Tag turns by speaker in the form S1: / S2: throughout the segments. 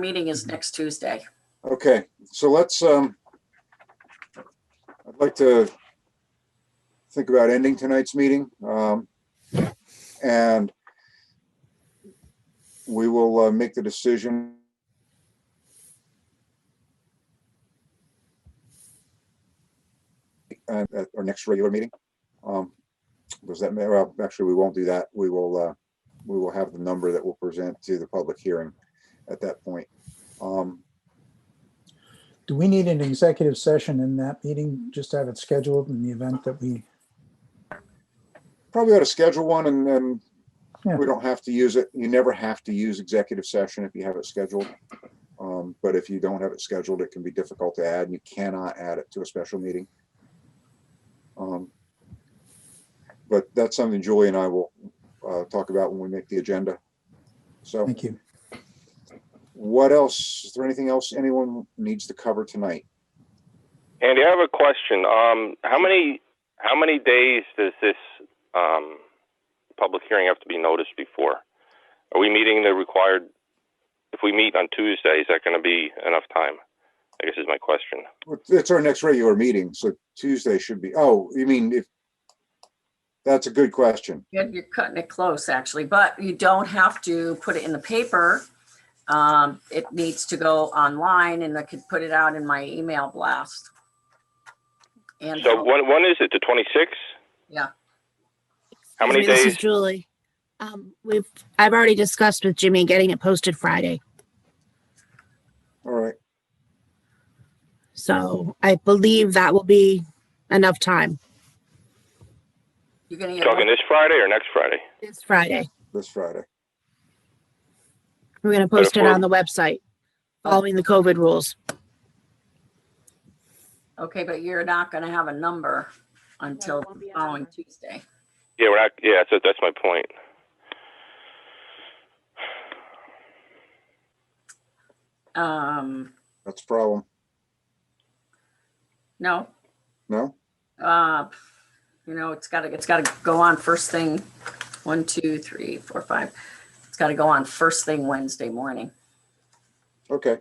S1: meeting is next Tuesday.
S2: Okay, so let's, um, I'd like to think about ending tonight's meeting. Um, and we will, uh, make the decision. And at our next regular meeting. Um, does that matter? Well, Actually, we won't do that. We will, uh, we will have the number that we'll present to the public hearing at that point. Um,
S3: Do we need an executive session in that meeting? Just have it scheduled in the event that we,
S2: probably ought to schedule one and then
S3: Yeah.
S2: we don't have to use it. You never have to use executive session if you have it scheduled. Um, but if you don't have it scheduled, it can be difficult to add and you cannot add it to a special meeting. Um, But that's something Julie and I will, uh, talk about when we make the agenda. So
S3: thank you.
S2: what else? Is there anything else anyone needs to cover tonight?
S4: Andy, I have a question. Um, how many how many days does this um, public hearing have to be noticed before? Are we meeting the required? If we meet on Tuesday, is that going to be enough time? I guess is my question.
S2: It's our next regular meeting, so Tuesday should be, oh, you mean if, that's a good question.
S1: You're, you're cutting it close, actually, but you don't have to put it in the paper. Um, it needs to go online and I could put it out in my email blast. And
S4: So when when is it? The twenty sixth?
S1: Yeah.
S4: How many
S5: Excuse me, This
S4: days?
S5: is Julie. Um, we've, I've already discussed with Jimmy getting it posted Friday.
S2: All right.
S5: So I believe that will be enough time
S1: you're gonna get,
S4: Talking
S1: a-
S4: this Friday or next Friday?
S5: this Friday.
S2: this Friday.
S5: We're going to post it on the website following the COVID rules.
S1: okay, but you're not gonna have a number until the following Tuesday.
S4: Yeah, we're not. Yeah, so that's my point.
S1: Um,
S2: That's a problem.
S1: no,
S2: No?
S1: uh, you know, it's gotta, it's gotta go on first thing, one, two, three, four, five. It's gotta go on first thing Wednesday morning.
S2: Okay.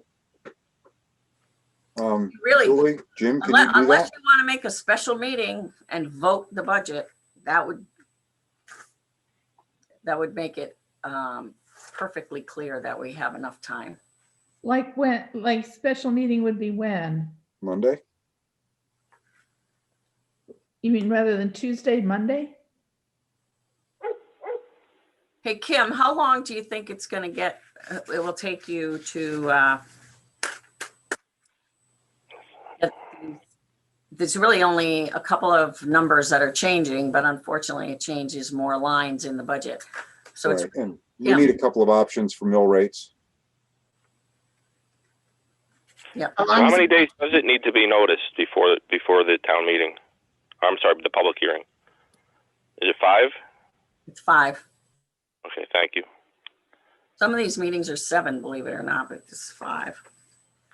S2: Um,
S1: Really,
S2: Julie, Jim, can
S1: Unless,
S2: you do
S1: unless
S2: that?
S1: you want to make a special meeting and vote the budget, that would that would make it um, perfectly clear that we have enough time.
S6: Like when, like special meeting would be when?
S2: Monday?
S6: You mean rather than Tuesday, Monday?
S1: Hey, Kim, how long do you think it's going to get, uh, it will take you to uh, get the- there's really only a couple of numbers that are changing, but unfortunately it changes more lines in the budget. So it's
S2: Right, and we
S1: yeah.
S2: need a couple of options for mill rates.
S5: How
S4: So how
S5: long,
S4: many days does it need to be noticed before before the town meeting? I'm sorry, the public hearing. Is it five?
S1: it's five.
S4: Okay, thank you.
S1: Some of these meetings are seven, believe it or not, but this is five.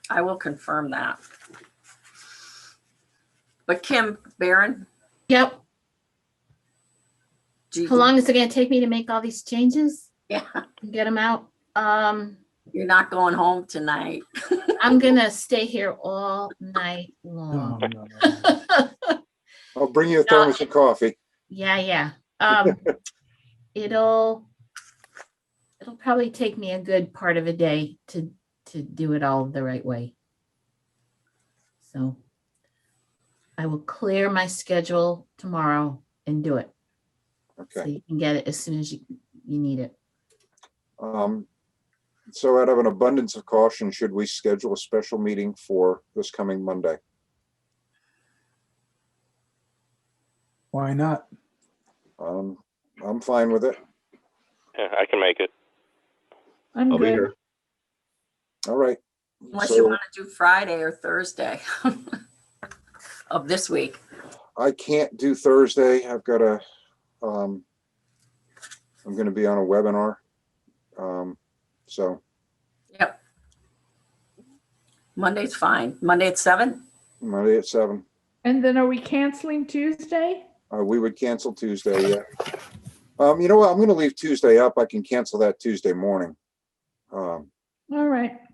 S1: I will confirm that. But Kim, Baron,
S7: Yep.
S1: do
S7: How
S1: you,
S7: long is it gonna take me to make all these changes
S1: yeah,
S7: and get them out? Um,
S1: you're not going home tonight.
S7: I'm gonna stay here all night
S3: Oh,
S7: long.
S3: no.
S2: I'll bring you a thermos of coffee.
S7: Yeah, yeah. Um, it'll, it'll probably take me a good part of a day to, to do it all the right way. So I will clear my schedule tomorrow and do it. So
S2: Okay.
S7: you can get it as soon as you, you need it.
S2: Um, so out of an abundance of caution, should we schedule a special meeting for this coming Monday?
S3: Why not?
S2: Um, I'm fine with it.
S4: Yeah, I can make it.
S6: I'm
S8: I'll be
S6: good.
S8: here.
S2: All right.
S1: Unless you
S2: So
S1: want to do Friday or Thursday of this week.
S2: I can't do Thursday. I've got a, um, I'm gonna be on a webinar. Um, so
S1: Yep. Monday's fine. Monday at seven?
S2: Monday at seven.
S6: And then are we canceling Tuesday?
S2: Uh, we would cancel Tuesday, yeah. Um, you know what? I'm gonna leave Tuesday up. I can cancel that Tuesday morning. Um,
S6: All right.